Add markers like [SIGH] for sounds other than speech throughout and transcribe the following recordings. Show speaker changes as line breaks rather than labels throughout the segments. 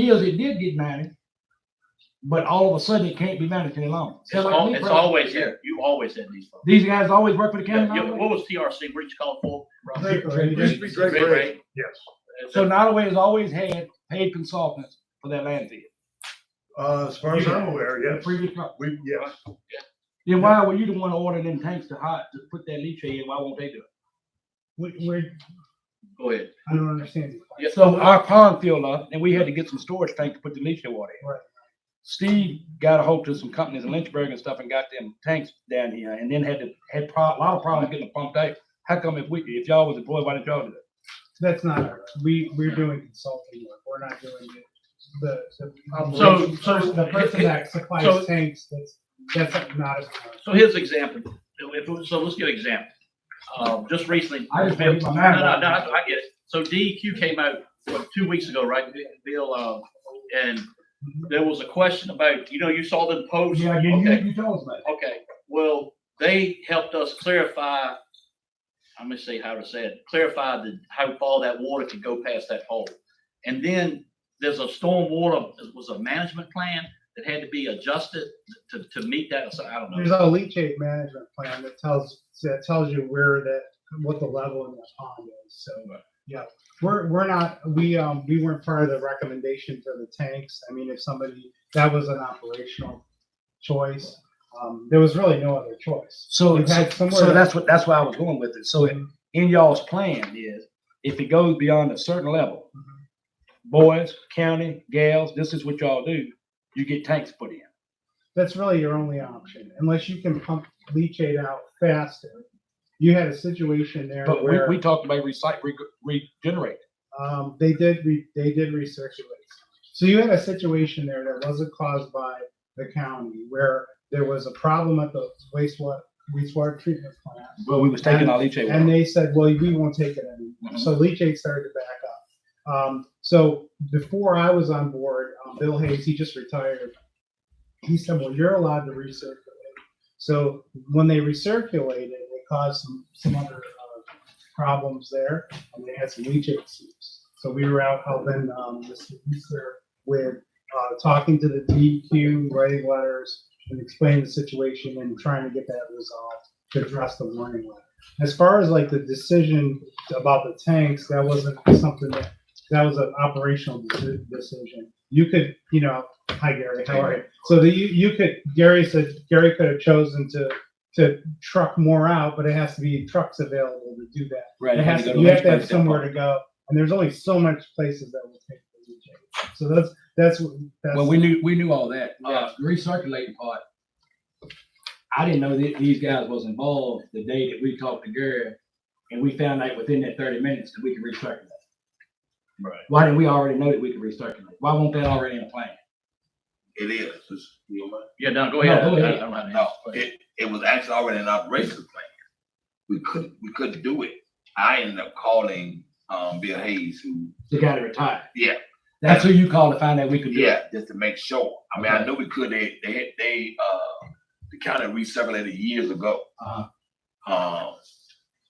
Because it did get managed, but all of a sudden it can't be managed any longer.
It's al- it's always, you you always had these folks.
These guys always work for the county.
Yeah, yeah,
now?
What was TRC, what did you call it for?
Drake,
Drake,
Drake,
Drake, Drake,
Drake,
Drake.
Drake.
Yes.
So Nottaway has always had paid consultants for that land deal.
Uh, as far as I'm aware,
the
yes.
Previous, company.
We, yes.
then why were you the one to order them tanks to hot, to put that leachate in? Why won't they do it?
Wait, wait,
Go ahead.
I don't understand. you.
Yes,
So our pond filled up and we had to get some storage tank to put the leachate water in.
Right.
Steve got a hold of some companies in Lynchburg and stuff and got them tanks down here and then had to, had pro- a lot of problems getting them pumped out. How come if we, if y'all was employed, why didn't y'all do that?
That's not, our- we, we're doing consulting work. We're not doing the, the. the-
So- so-
The person that
so-
supplies tanks, that's, that's not. a-
So here's an example. So if- So let's get an example. Um, just recently.
I just made my
No,
mind
no,
up.
no, I get it. So DEQ came out, what, two weeks ago, right, Bill, um, and there was a question about, you know, you saw the post.
Yeah, you, you,
Okay,
you told us about it.
okay. Well, they helped us clarify, I'm gonna say how to say it, clarify the, how far that water could go past that hole. And then there's a storm water, it was a management plan that had to be adjusted to, to meet that, so I don't know.
There's a leachate management plan that tells, that tells you where that, what the level in the pond is, so.
Right.
Yeah, we're, we're not, we, um, we weren't part of the recommendation for the tanks. I mean, if somebody, that was an operational choice. Um, there was really no other choice.
So,
We've had
so
somewhere-
that's what, that's why I was going with it. So in- in y'all's plan is, if it goes beyond a certain level,
Mhm.
boys, county, gals, this is what y'all do, you get tanks put in.
that's really your only option, unless you can pump leachate out faster. You had a situation there
But we,
where
we talked about recite, reg- regenerate.
um, they did re, they did recirculate. So you had a situation there that wasn't caused by the county, where there was a problem at the wastewater wastewater treatment plant,
Well, we was taking our leachate.
and
water.
they said, "Well, we won't take it anymore."
Mhm.
So leachate started to back up. Um, so before I was on board, um, Bill Hayes, he just retired. He said, "Well, you're allowed to recirculate." So when they recirculated, it caused some some other uh, problems there, and they had some leachate seeps. So we were out helping um, Mr. Easter with uh, talking to the DQ, writing letters, and explaining the situation and trying to get that resolved to address the warning letter. As far as like the decision about the tanks, that wasn't something that, that was an operational deci- decision. You could, you know, hi Gary, how are you? So that you, you could, Gary said, Gary could have chosen to, to truck more out, but it has to be trucks available to do that.
Right,
It
had
has,
go
to-
to
you have to
Lynchburg
have somewhere to go, and there's only so much places that will take the DJ. So that's, that's, what- that's.
Well, we knew, we knew all that.
Yeah.
Uh, the recirculating part. I didn't know that these guys was involved the day that we talked to Gary and we found out within that thirty minutes that we could recirculate.
Right.
Why didn't we already know that we could recirculate? Why won't that already in the plan?
It is. It's- you know what?
Yeah, no,
No,
go ahead.
go
I- I
ahead.
don't have any-
No, it, it was actually already an operations plan. We couldn't, we couldn't do it. I ended up calling, um, Bill Hayes, who,
The guy that retired.
Yeah.
That's who you called to find out we could do it.
yeah, just to make sure. I mean, I knew we could, they, they, had- they, uh, the county recirculated years ago.
Uh-huh.
Um,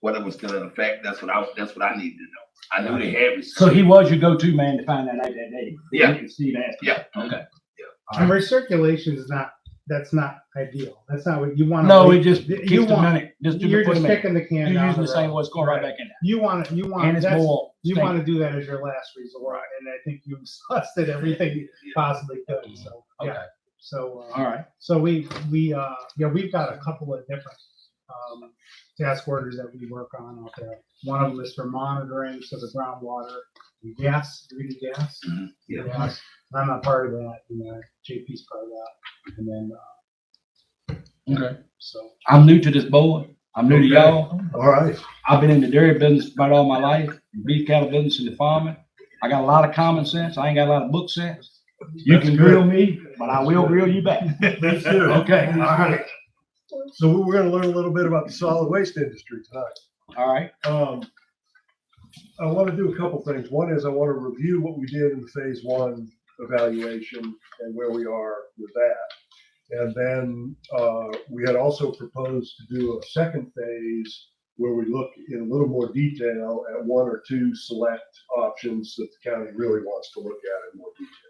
whether it was still in effect, that's what I, was- that's what I needed to know. I knew they had.
So he was your go-to man to find that out that day.
Yeah.
And Steve asked. him.
Yeah.
Okay.
And recirculation is not, that's not ideal. That's not what you want.
No, we just
You
keeps the
want-
money, just do
You're
the
just
minute.
kicking the
You're
can down
using
the
the same,
road.
what's going right back in there.
You want, you
And
want,
it's
that's,
more.
you
stinky.
want to do that as your last resort. And I think you [LAUGHS] exhausted everything you possibly could, so, yeah.
Okay.
So, uh,
All right.
so we, we, uh, yeah, we've got a couple of different, um, task orders that we work on out there. One of them is for monitoring, so the groundwater, and gas, do we do gas?
Mhm, yeah.
Gas. I'm not part of that, you know, JP's part of that, and then, uh,
Okay.
so.
I'm new to this board. I'm new to
Okay.
y'all.
All right.
I've been in the dairy business about all my life, beef cattle business and the farming. I got a lot of common sense. I ain't got a lot of book sense. You
That's
can
good.
grill me, but I will grill you back.
That's good.
Okay.
[LAUGHS] All right. So we- we're gonna learn a little bit about the solid waste industry tonight.
All right.
Um, I want to do a couple things. One is I want to review what we did in the phase one evaluation and where we are with that. And then, uh, we had also proposed to do a second phase where we look in a little more detail at one or two select options that the county really wants to look at in more detail.